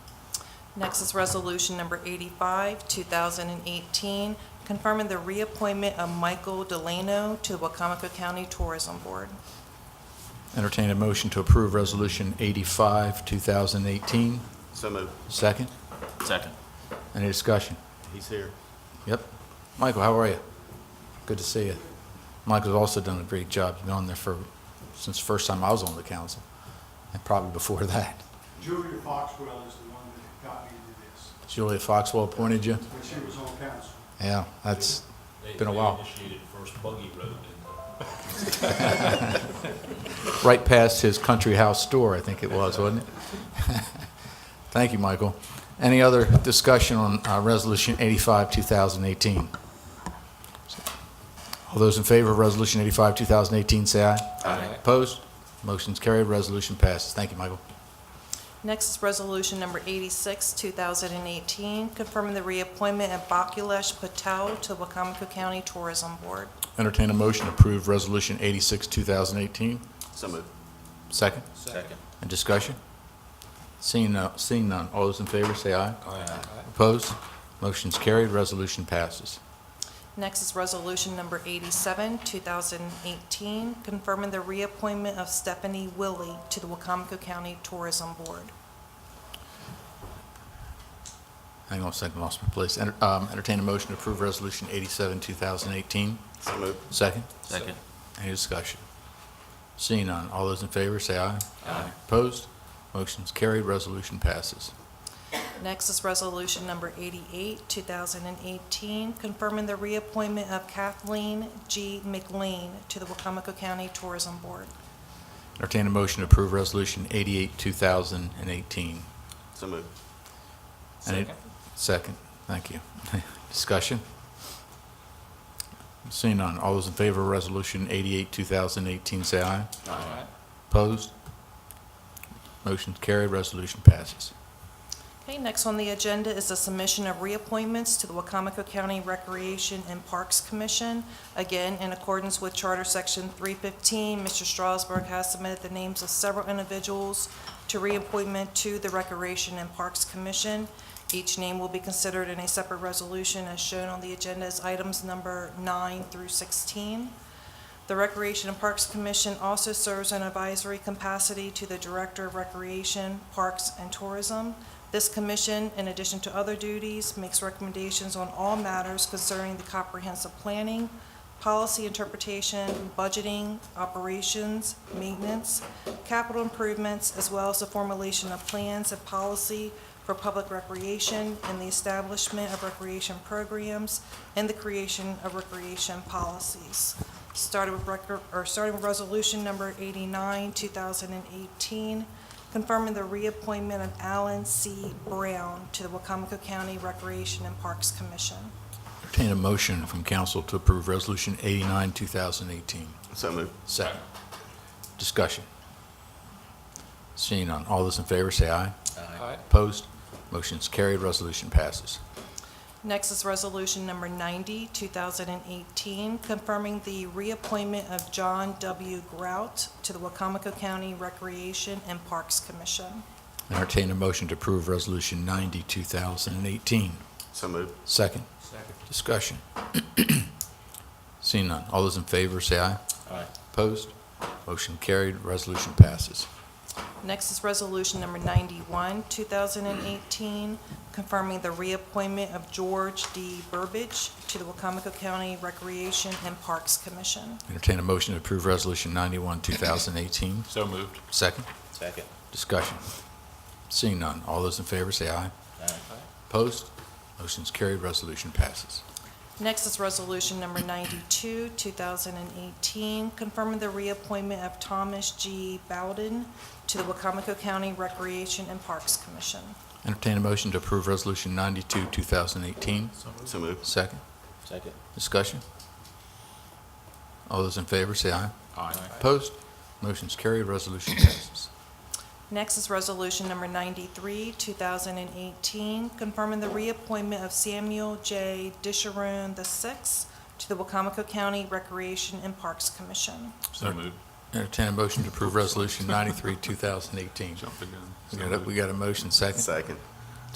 Next is Resolution Number 85, 2018, confirming the reappointment of Michael Delano to the Wacomico County Tourism Board. Entertain a motion to approve Resolution 85, 2018. So moved. Second? Second. Any discussion? He's here. Yep. Michael, how are you? Good to see you. Michael's also done a great job. He's been on there for, since the first time I was on the council, and probably before that. Julia Foxwell is the one that got me into this, Julia Foxwell appointed you? when she was on council. Yeah, that's They- been a they while. Initiated first buggy road, didn't they? Right past his country house store, I think it was, wasn't it? Thank you, Michael. Any other discussion on uh, Resolution 85, 2018? All those in favor of Resolution 85, 2018, say aye. Aye. Opposed? Motion's carried, resolution passes. Thank you, Michael. Next is Resolution Number 86, 2018, confirming the reappointment of Bakulesh Patel to the Wacomico County Tourism Board. Entertain a motion to approve Resolution 86, 2018. So moved. Second? Second. And discussion? Seeing no- seeing none, all those in favor say aye. Opposed? Motion's carried, resolution passes. Next is Resolution Number 87, 2018, confirming the reappointment of Stephanie Willie to the Wacomico County Tourism Board. Hang on a second, lost my place. Enter- um, Entertain a motion to approve Resolution 87, 2018. So moved. Second? Second. Any discussion? Seeing none, all those in favor say aye. Aye. Opposed? Motion's carried, resolution passes. Next is Resolution Number 88, 2018, confirming the reappointment of Kathleen G. McLean to the Wacomico County Tourism Board. Entertain a motion to approve Resolution 88, 2018. So moved. Any- Second, thank you. Discussion? Seeing none, all those in favor of Resolution 88, 2018, say aye. Aye. Opposed? Motion's carried, resolution passes. Okay, next on the agenda is the submission of reappointments to the Wacomico County Recreation and Parks Commission. Again, in accordance with Charter Section 315, Mr. Strasburg has submitted the names of several individuals to reappointment to the Recreation and Parks Commission. Each name will be considered in a separate resolution as shown on the agenda as items number 9 through 16. The Recreation and Parks Commission also serves an advisory capacity to the Director of Recreation, Parks, and Tourism. This commission, in addition to other duties, makes recommendations on all matters concerning the comprehensive planning, policy interpretation, budgeting, operations, maintenance, capital improvements, as well as the formulation of plans and policy for public recreation and the establishment of recreation programs and the creation of recreation policies. Started with record, or starting with resolution number 89, 2018, confirming the reappointment of Alan C. Brown to the Wacomico County Recreation and Parks Commission. Entertain a motion from council to approve Resolution 89, 2018. So moved. Second. Discussion. Seeing none, all those in favor say aye. Aye. Opposed? Motion's carried, resolution passes. Next is Resolution Number 90, 2018, confirming the reappointment of John W. Grout to the Wacomico County Recreation and Parks Commission. Entertain a motion to approve Resolution 90, 2018. So moved. Second. Second. Discussion. Seeing none, all those in favor say aye. Aye. Opposed? Motion carried, resolution passes. Next is Resolution Number 91, 2018, confirming the reappointment of George D. Burbidge to the Wacomico County Recreation and Parks Commission. Entertain a motion to approve Resolution 91, 2018. So moved. Second. Second. Discussion. Seeing none, all those in favor say aye. Aye. Opposed? Motion's carried, resolution passes. Next is Resolution Number 92, 2018, confirming the reappointment of Thomas G. Bowden to the Wacomico County Recreation and Parks Commission. Entertain a motion to approve Resolution 92, 2018. So moved. Second. Second. Discussion. All those in favor say aye. Aye. Opposed? Motion's carried, resolution passes. Next is Resolution Number 93, 2018, confirming the reappointment of Samuel J. Disharoon VI to the Wacomico County Recreation and Parks Commission. So moved. Entertain a motion to approve Resolution 93, 2018. Jump the gun. We got a- We got a motion second. Second.